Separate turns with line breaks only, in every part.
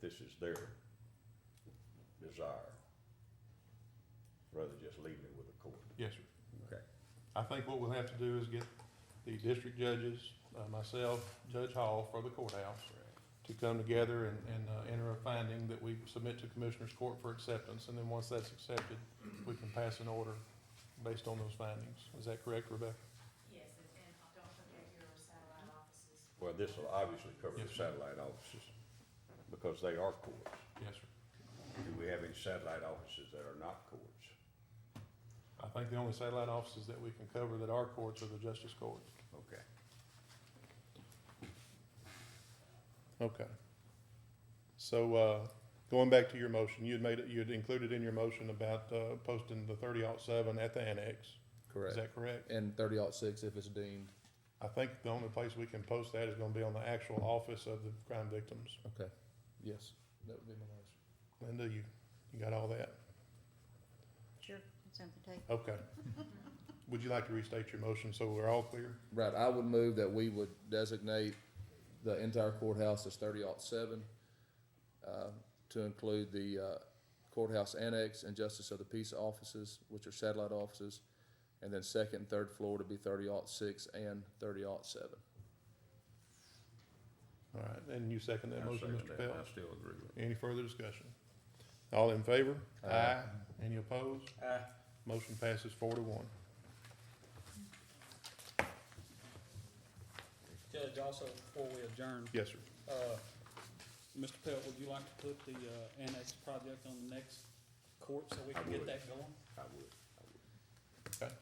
this is their desire, rather than just leaving it with the court.
Yes, sir.
Okay.
I think what we'll have to do is get the district judges, uh, myself, Judge Hall for the courthouse, to come together and, and, uh, enter a finding that we submit to Commissioners Court for acceptance, and then once that's accepted, we can pass an order based on those findings. Is that correct, Rebecca?
Yes, and and don't forget your satellite offices.
Well, this will obviously cover the
Yes, sir.
satellite offices, because they are courts.
Yes, sir.
Do we have any satellite offices that are not courts?
I think the only satellite offices that we can cover that are courts are the justice court.
Okay.
Okay. So, uh, going back to your motion, you had made, it- you had included in your motion about, uh, posting the thirty seven at the annex. Is
Correct.
that correct?
And thirty ought six if it's deemed.
I think the only place we can post that is gonna be on the actual office of the crime victims.
Okay. Yes, that would be my motion.
Linda, you, you got all that?
Sure, it's on the table.
Okay. Would you like to restate your motion so we're all clear?
Right, I would move that we would designate the entire courthouse as thirty ought seven, uh, to include the uh, courthouse annex and justice of the peace offices, which are satellite offices, and then second and third floor to be thirty ought six and thirty ought seven.
All right, and you second that
I
motion,
second
Mr.
that.
Pelt?
I still agree with
Any further discussion? All in favor?
Aye.
Any opposed?
it. Aye.
Motion passes four to one.
Judge, also, before we adjourn,
Yes, sir.
uh, Mr. Pelt, would you like to put the uh, annex project on the next court so we
I
can get
would.
that going?
I would, I would.
Okay.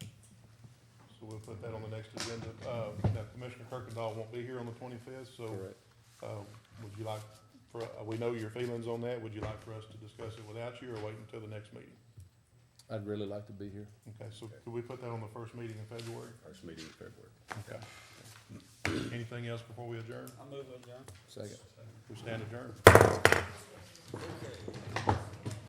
So we'll put that on the next agenda. Uh, now Commissioner Kirkendall won't be here on the twenty-fifth, so,
Correct.
uh, would you like, for, uh, we know your feelings on that. Would you like for us to discuss it without you or wait until the next meeting?
I'd really like to be here.
Okay, so could we put that on the first meeting in February?
First meeting in February.
Okay. Anything else before we adjourn?
I move adjourn.
Second.
We stand adjourned.